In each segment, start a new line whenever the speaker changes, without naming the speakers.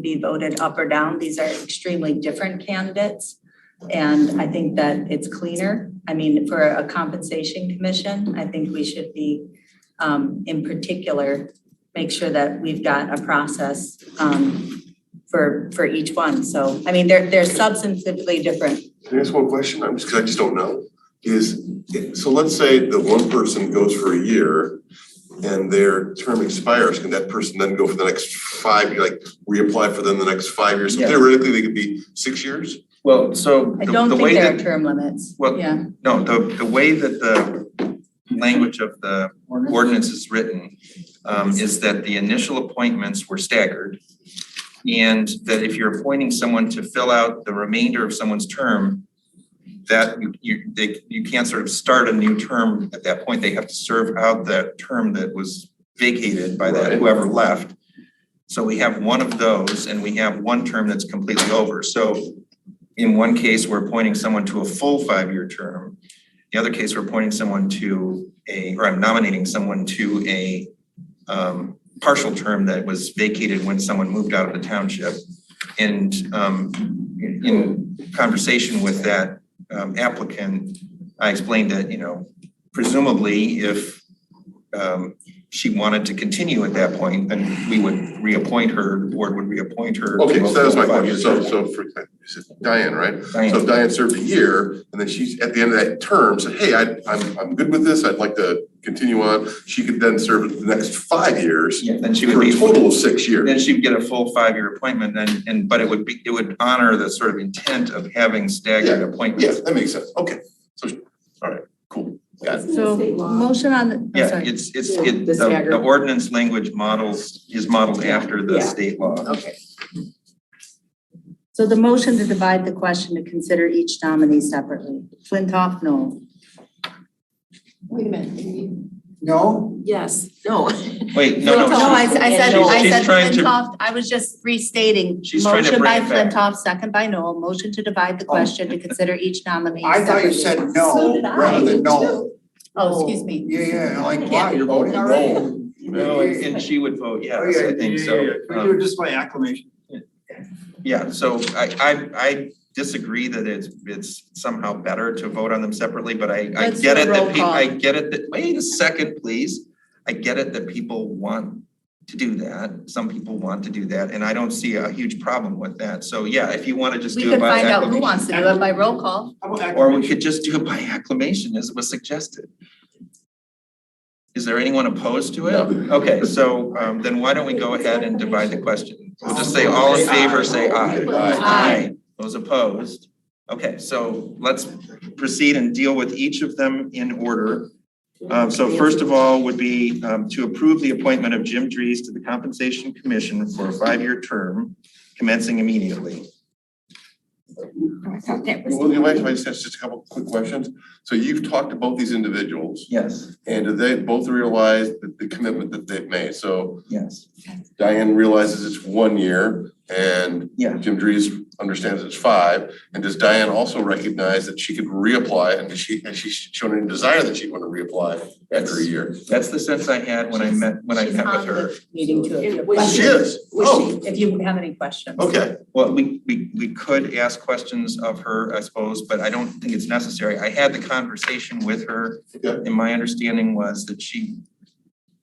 be voted up or down. These are extremely different candidates. And I think that it's cleaner. I mean, for a compensation commission, I think we should be, um, in particular, make sure that we've got a process, um, for, for each one. So, I mean, they're, they're substantively different.
Can I ask one question? I'm just, 'cause I just don't know, is, so let's say the one person goes for a year and their term expires, can that person then go for the next five, year, like reapply for them the next five years? So
Yes.
Theoretically, they could be six years?
Well, so
I
the
don't
the
think
way
there are
that,
term limits.
Well-
Yeah.
no, the the way that the language of the ordinance is written um is that the initial appointments were staggered. And that if you're appointing someone to fill out the remainder of someone's term, that you- you they you can't sort of start a new term at that point. They have to serve out that term that was vacated by that
Right.
whoever left. So we have one of those and we have one term that's completely over. So in one case, we're appointing someone to a full five-year term. The other case, we're appointing someone to a, or I'm nominating someone to a um partial term that was vacated when someone moved out of the township. And um in in conversation with that um applicant, I explained that, you know, presumably if um she wanted to continue at that point, then we would reappoint her, the board would reappoint her. to
Okay,
a
so that was my
full
question, so
five-year
so for, you said Diane, right?
term.
So
Diane,
if Diane served a year and then she's at the end of that term, said, hey, I I'm I'm good with this, I'd like to continue on, she could then serve the next five years
yeah, then she would
for a
be.
total of six years.
Then she'd get a full five-year appointment and, and, but it would be, it would honor the sort of intent of having staggered appointments.
Yes, that makes sense, okay, so, all right, cool, got it.
So motion on the, I'm
Yeah,
sorry.
it's, it's,
Yeah,
it,
the
the,
staggered.
the ordinance language models, is modeled after the
Yeah.
state law.
Okay.
So the motion to divide the question to consider each nominee separately. Flintoff, no.
Wait a minute.
No,
Yes, no.
Wait, no,
Flintoff.
No, I,
no,
I
she-
said,
She's-
I
she's
said
trying to-
Flintoff, I was just restating.
She's trying to bring
Motion
it
by
back.
Flintoff, second by Noel, motion to divide the
Oh.
question to consider each nominee
I thought you
separately.
said
So
no
did
rather than no.
Oh, excuse me.
Yeah, yeah, like,
Yeah.
wow, you're voting
All right.
no.
no, and and she would vote
Oh,
yes, I think so.
We
Um,
do it just by acclamation.
Yeah, so I, I, I disagree that it's, it's somehow better to vote on them separately, but I, I
Let's
get
do a
it
roll
that people,
call.
I get it that, wait a second, please. I get it that people want to do that, some people want to do that, and I don't see a huge problem with that, so yeah, if you wanna just
We
do it
could
by
find out who
acclamation.
wants to do it by roll call.
How
Or
about
we
acclamation?
could just do it by acclamation as was suggested. Is there anyone opposed to it?
No.
Okay, so um then why don't we go ahead and divide the question? We'll just say all in favor, say aye.
Aye.
Those opposed? Okay, so let's proceed and deal with each of them in order. Um so first of all would be um to approve the appointment of Jim Dries to the Compensation Commission for a five-year term commencing immediately.
Well, you might, if I just ask just a couple quick questions. So you've talked to both these individuals
Yes,
and do they both realize the, the commitment that they've made? So
yes,
Diane realizes it's one year and
yeah.
Jim Dries understands it's five. And does Diane also recognize that she could reapply and does she, has she shown any desire that she'd want to reapply after a year?
That's the sense I had when I met, when I met with her.
Meeting to
It
it.
was-
She is, oh,
If you have any questions.
okay,
Well, we, we, we could ask questions of her, I suppose, but I don't think it's necessary. I had the conversation with her.
Yeah.
And my understanding was that she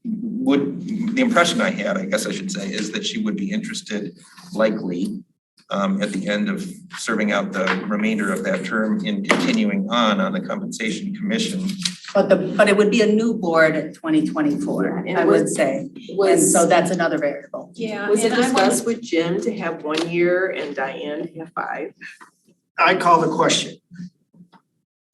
would, the impression I had, I guess I should say, is that she would be interested likely um, at the end of serving out the remainder of that term in continuing on, on the compensation commission.
But the, but it would be a new board at twenty twenty-four,
Yeah, and
I
it was-
would say. And
Was,
so that's another variable.
Yeah,
was it
and I wanted,
discussed with Jim to have one year and Diane to have five?
I call the question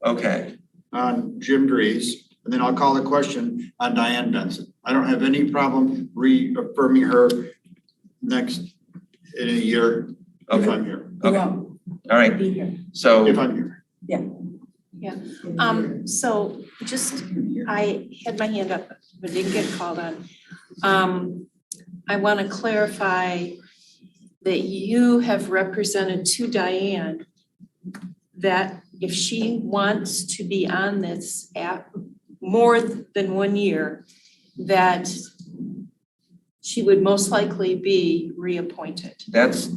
Okay,
on Jim Dries, and then I'll call the question on Diane Benson. I don't have any problem reaffirming her next, in a year, if
okay,
I'm here,
okay, all right,
Be here.
so.
if I'm here.
um, so just, I had my hand up, but didn't get called on. Um, I want to clarify that you have represented to Diane that if she wants to be on this app more than one year, that she would most likely be reappointed.
That's,